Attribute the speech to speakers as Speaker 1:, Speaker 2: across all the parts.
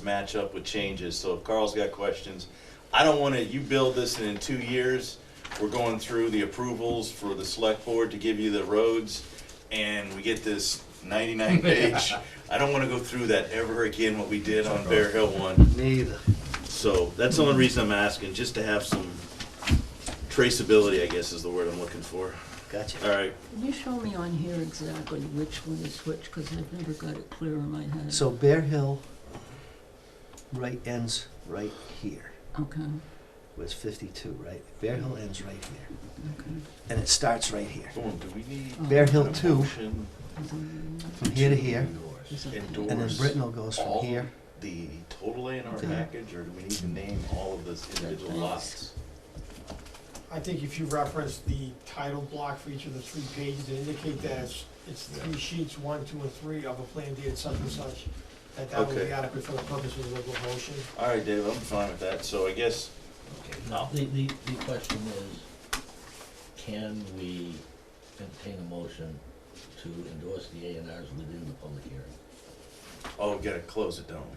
Speaker 1: match up with changes, so if Carl's got questions, I don't wanna, you build this and in two years, we're going through the approvals for the select board to give you the roads, and we get this ninety-nine page. I don't wanna go through that ever again, what we did on Bear Hill one,
Speaker 2: Neither.
Speaker 1: so that's the only reason I'm asking, just to have some traceability, I guess is the word I'm looking for.
Speaker 2: Gotcha.
Speaker 1: Alright,
Speaker 3: Can you show me on here exactly which one is which, because I've never got it clear in my head?
Speaker 2: So Bear Hill right ends right here.
Speaker 3: Okay,
Speaker 2: Was fifty-two, right? Bear Hill ends right here.
Speaker 3: okay.
Speaker 2: And it starts right here.
Speaker 1: boom, do we need?
Speaker 2: Bear Hill
Speaker 1: a
Speaker 2: two,
Speaker 1: motion
Speaker 2: from here to here.
Speaker 3: Is that-
Speaker 1: Endorse.
Speaker 2: And then Britnell goes from here.
Speaker 1: the total A and R
Speaker 2: Okay.
Speaker 1: package, or do we need to name all of those individual lots?
Speaker 4: I think if you reference the title block for each of the three pages, it indicate that it's, it's three sheets, one, two, and three of a plan dated such and such, that that would
Speaker 1: Okay.
Speaker 4: be adequate for the purposes of the motion.
Speaker 1: All right, Dave, I'm fine with that, so I guess,
Speaker 5: Now, the, the, the question is, can we entertain a motion to endorse the A and Rs within the public hearing?
Speaker 1: oh, we gotta close it, don't we?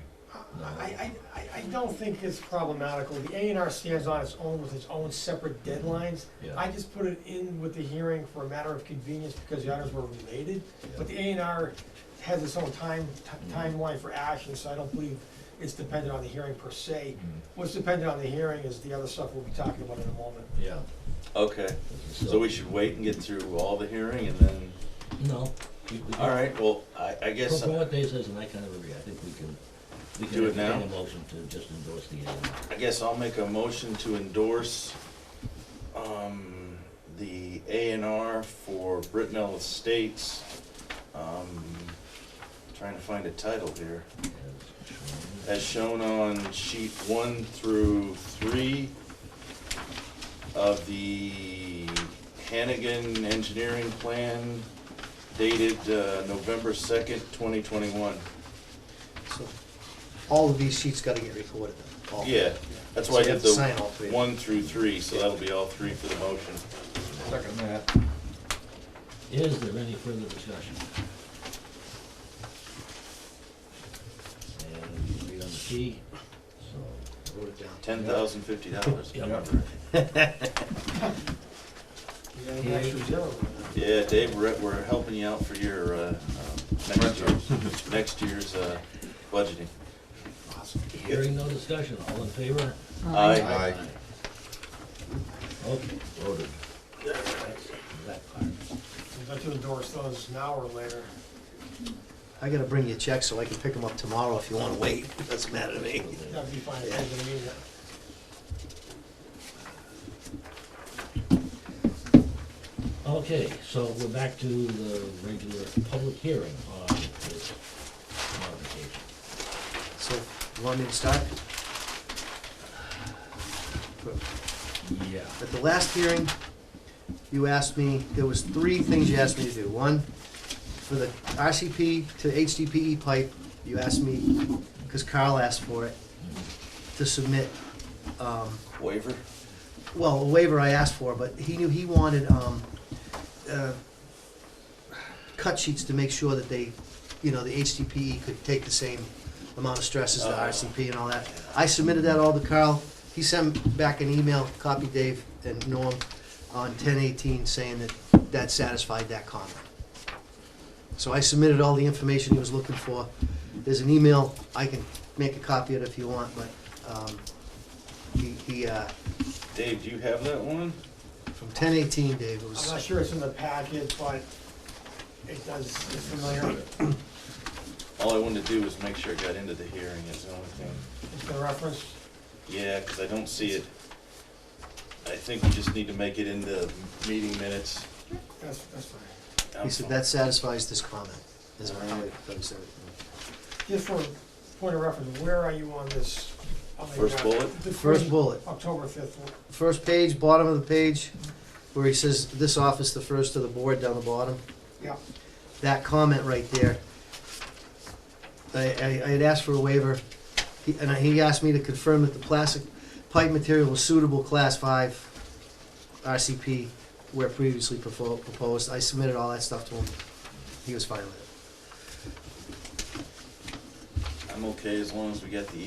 Speaker 4: I, I, I, I don't think it's problematical. The A and R stands on its own with its own separate deadlines. I
Speaker 5: Yeah,
Speaker 4: just put it in with the hearing for a matter of convenience because the others were related. But the A and R has its own time, ti- timeline for action, so I don't believe it's dependent on the hearing per se.
Speaker 1: Mm-hmm.
Speaker 4: What's dependent on the hearing is the other stuff we'll be talking about in a moment.
Speaker 5: yeah.
Speaker 1: Okay, so we should wait and get through all the hearing and then,
Speaker 5: No. we- we-
Speaker 1: all right, well, I, I
Speaker 5: From
Speaker 1: guess, uh,
Speaker 5: from what Dave says, and I kind of agree, I think we can, we can
Speaker 1: Do it
Speaker 5: entertain
Speaker 1: now?
Speaker 5: a motion to just endorse the A and R.
Speaker 1: I guess I'll make a motion to endorse, um, the A and R for Britnell Estates. Um, trying to find a title here.
Speaker 5: as shown.
Speaker 1: as shown on sheet one through three of the Hannigan Engineering Plan dated uh, November second, twenty twenty-one.
Speaker 2: So all of these sheets gotta get recorded though. all-
Speaker 1: Yeah, that's
Speaker 2: So
Speaker 1: why I
Speaker 2: you
Speaker 1: did
Speaker 2: have to Sign all
Speaker 1: the
Speaker 2: three.
Speaker 1: one through three, so that'll be all three for the motion.
Speaker 5: Is there any further discussion? And we agreed on the fee, so.
Speaker 2: Wrote it down.
Speaker 1: Ten thousand fifty dollars.
Speaker 4: You got an extra zero.
Speaker 1: Yeah, Dave, we're, we're helping you out for your, uh, um, next year's, next year's, uh, budgeting.
Speaker 4: Awesome.
Speaker 5: Hearing no discussion, all in favor?
Speaker 1: Aye.
Speaker 5: Okay, voted. That's that part.
Speaker 4: We'd like to endorse those now or later.
Speaker 2: I gotta bring you a check so I can pick them up tomorrow if you wanna wait. Doesn't matter to me.
Speaker 4: That'd be fine, I didn't mean that.
Speaker 5: Okay, so we're back to the regular public hearing on this modification.
Speaker 2: So, you want me to start?
Speaker 5: Yeah.
Speaker 2: At the last hearing, you asked me, there was three things you asked me to do. One, for the RCP to HDPE E pipe, you asked me, because Carl asked for it, to submit, um,
Speaker 1: Waiver?
Speaker 2: well, a waiver I asked for, but he knew he wanted, um, uh, cut sheets to make sure that they, you know, the HDPE E could take the same amount of stress as the
Speaker 1: Oh.
Speaker 2: RCP and all that. I submitted that all to Carl, he sent back an email, copy Dave and Norm, on ten eighteen, saying that that satisfied that comment. So I submitted all the information he was looking for, there's an email, I can make a copy of it if you want, but, um, he, he, uh,
Speaker 1: Dave, do you have that one?
Speaker 2: from ten eighteen, Dave, it
Speaker 4: I'm not
Speaker 2: was,
Speaker 4: sure it's in the packet, but it does, it's familiar,
Speaker 1: All I wanted to do was make sure it got into the hearing is the only thing.
Speaker 4: it's been referenced.
Speaker 1: Yeah, because I don't see it. I think we just need to make it into meeting minutes.
Speaker 4: That's, that's fine.
Speaker 1: I'm
Speaker 2: he said,
Speaker 1: fine.
Speaker 2: that satisfies this comment, is how he puts it.
Speaker 4: Just for point of reference, where are you on this? on the
Speaker 1: First
Speaker 4: graphic?
Speaker 1: bullet?
Speaker 4: The
Speaker 2: First bullet,
Speaker 4: October fifth, one.
Speaker 2: first page, bottom of the page, where he says, this office, the first of the board down the bottom,
Speaker 4: yeah.
Speaker 2: that comment right there. I, I, I had asked for a waiver, he- and he asked me to confirm that the plastic pipe material was suitable class five RCP where previously propo- proposed, I submitted all that stuff to him, he was fine with it.
Speaker 1: I'm okay as long as we get the